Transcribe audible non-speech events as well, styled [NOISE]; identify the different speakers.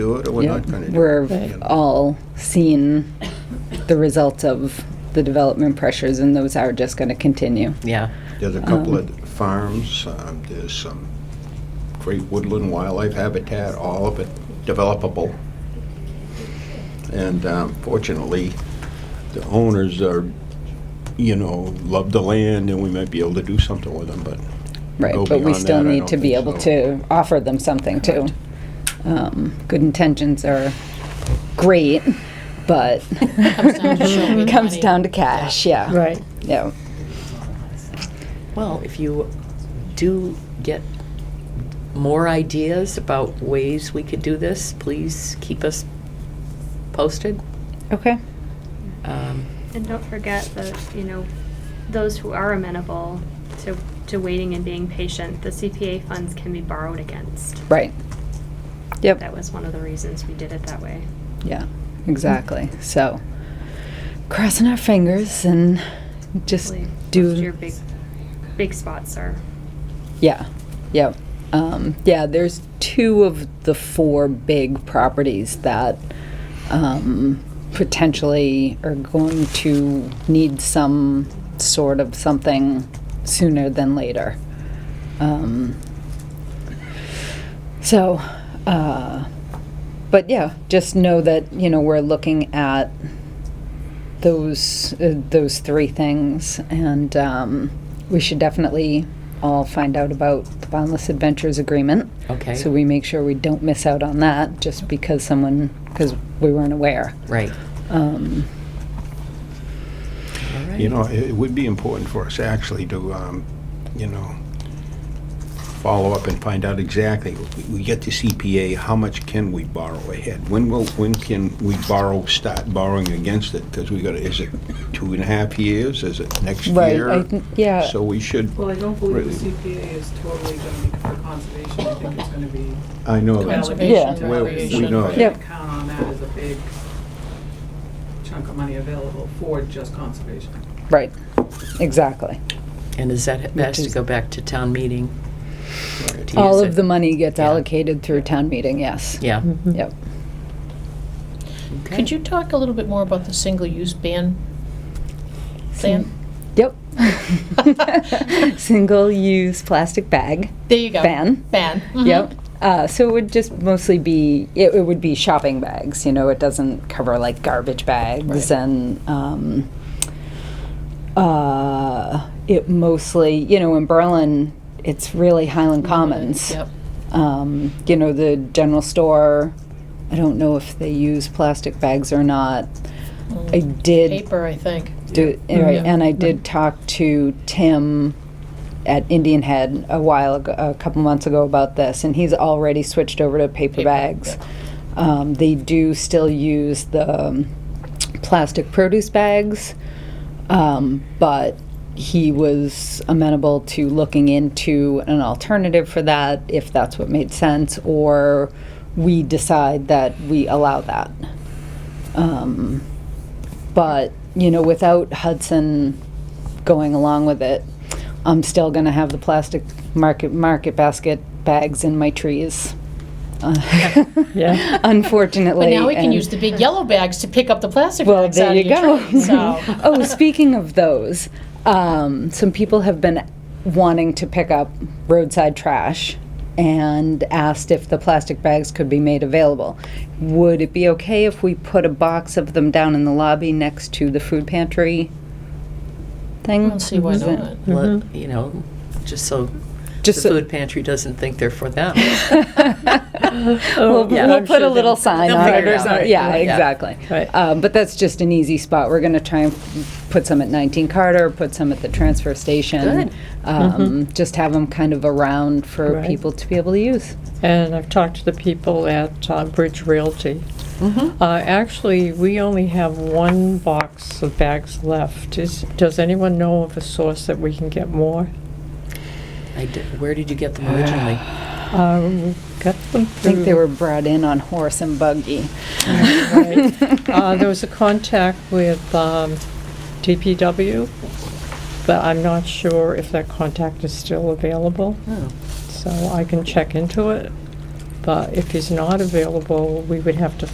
Speaker 1: do it or we're not going to do it.
Speaker 2: We're all seeing the results of the development pressures, and those are just going to continue.
Speaker 3: Yeah.
Speaker 1: There's a couple
Speaker 2: um,
Speaker 1: of farms, um, there's some great woodland wildlife habitat, all of it developable. And um, fortunately, the owners are, you know, love the land and we might be able to do something with them, but
Speaker 2: Right,
Speaker 1: Go
Speaker 2: but we
Speaker 1: beyond
Speaker 2: still
Speaker 1: that, I
Speaker 2: need
Speaker 1: don't
Speaker 2: to be
Speaker 1: think so.
Speaker 2: able to offer them something too. Um, Good intentions are great, but it [LAUGHS] comes down to cash, yeah.
Speaker 4: Right.
Speaker 2: Yeah,
Speaker 3: Well, if you do get more ideas about ways we could do this, please keep us posted.
Speaker 2: okay.
Speaker 3: Um,
Speaker 5: And don't forget the, you know, those who are amenable to, to waiting and being patient, the CPA funds can be borrowed against.
Speaker 2: Right. Yep,
Speaker 5: That was one of the reasons we did it that way.
Speaker 2: yeah, exactly. So, crossing our fingers and just
Speaker 5: Really,
Speaker 2: do.
Speaker 5: most of Your big, big spots are.
Speaker 2: Yeah, yeah. Um, yeah, there's two of the four big properties that um, potentially are going to need some sort of something sooner than later. Um, so, uh, but yeah, just know that, you know, we're looking at those, uh, those three things, and um, we should definitely all find out about the Boundless Adventures Agreement.
Speaker 3: Okay.
Speaker 2: So we make sure we don't miss out on that, just because someone, because we weren't aware.
Speaker 3: Right.
Speaker 2: Um,
Speaker 3: All right.
Speaker 1: You know, it it would be important for us actually to, um, you know, follow up and find out exactly, we- we get to CPA, how much can we borrow ahead? When will, when can we borrow, start borrowing against it? Because we got, to is it two and a half years? Is it next
Speaker 2: Right,
Speaker 1: year?
Speaker 2: I think- yeah.
Speaker 1: So we should,
Speaker 6: Well, I don't believe the
Speaker 1: Really?
Speaker 6: CPA is totally going to be for conservation. I think it's going to be
Speaker 1: I know that.
Speaker 6: conservation
Speaker 1: Yeah.
Speaker 6: to
Speaker 1: Well, we
Speaker 6: recreation.
Speaker 1: know.
Speaker 6: but I
Speaker 2: Yep.
Speaker 6: Count on that as a big chunk of money available for just conservation.
Speaker 2: right, exactly.
Speaker 3: And is that, that has to go back to town meeting? to
Speaker 2: All of Mm-hmm.
Speaker 3: use it?
Speaker 2: the money gets
Speaker 3: Yeah.
Speaker 2: allocated through town meeting, yes.
Speaker 3: Yeah.
Speaker 2: Yep.
Speaker 3: Okay.
Speaker 4: Could you talk a little bit more about the single-use ban? Plan?
Speaker 2: [LAUGHS] Yep. Single-use plastic bag.
Speaker 4: There you go.
Speaker 2: Ban.
Speaker 4: Ban. mhm.
Speaker 2: Yep. Uh, so it would just mostly be it, it would be shopping bags. You know, it doesn't cover like garbage bags
Speaker 4: Right.
Speaker 2: and. Um, uh, it mostly, you know, in Berlin, it's really Highland Commons.
Speaker 4: Mm-hmm. Yep.
Speaker 2: Um, you know, the general store. I don't know if they use plastic bags or not. I did
Speaker 4: Mm. Paper, I think.
Speaker 2: do, right,
Speaker 4: Yeah. Mm-hmm.
Speaker 2: and I did talk to Tim at Indian Head a while ago, a couple months ago about this, and he's already switched over to paper
Speaker 4: Paper,
Speaker 2: bags. Um, they do still use the um, plastic produce bags, um, but he was amenable to looking into an alternative for that if that's what made sense, or we decide that we allow that. Um, but, you know, without Hudson going along with it, I'm still going to have the plastic market, market basket bags in my trees. Yeah. [LAUGHS] Unfortunately.
Speaker 4: But now we can
Speaker 2: and-
Speaker 4: use the big yellow bags to pick up the plastic
Speaker 2: well,
Speaker 4: bags
Speaker 2: there
Speaker 4: out
Speaker 2: you
Speaker 4: of
Speaker 2: go.
Speaker 4: your
Speaker 2: [LAUGHS]
Speaker 4: tree, so.
Speaker 2: oh, speaking of those, um, some people have been wanting to pick up roadside trash and asked if the plastic bags could be made available. Would it be okay if we put a box of them down in the lobby next to the food pantry thing?
Speaker 4: I don't see why
Speaker 2: Is it-
Speaker 4: not.
Speaker 3: Let- You know, just so the
Speaker 2: Just so-
Speaker 3: food pantry doesn't think they're
Speaker 2: [LAUGHS]
Speaker 3: for them.
Speaker 2: we'll,
Speaker 3: yeah.
Speaker 2: we'll
Speaker 3: I'm
Speaker 2: put a little sign
Speaker 3: they'll
Speaker 2: on it.
Speaker 3: figure
Speaker 2: or
Speaker 3: it out.
Speaker 2: something. Yeah,
Speaker 3: Yeah.
Speaker 2: exactly.
Speaker 3: Right.
Speaker 2: Um, but that's just an easy spot. We're going to try and put some at 19 Carter, put some at the transfer station.
Speaker 3: Good. Mm-hmm.
Speaker 2: Um, Just have them kind of around for
Speaker 7: Right.
Speaker 2: people to be able to use.
Speaker 7: And I've talked to the people at uh, Bridge Realty. Uh, Actually, we only have one box of bags left. Is- Does anyone know of a source that we can get more?
Speaker 3: I did- Where did you get them originally?
Speaker 7: Uh, we Got them
Speaker 2: I think they
Speaker 3: Mm-hmm.
Speaker 7: through.
Speaker 2: were brought in on horse and buggy.
Speaker 7: right. Uh, There was a contact with um, DPW, but I'm not sure if that contact is still available,
Speaker 3: Oh,
Speaker 7: so I can check into it. But if he's not available, we would have to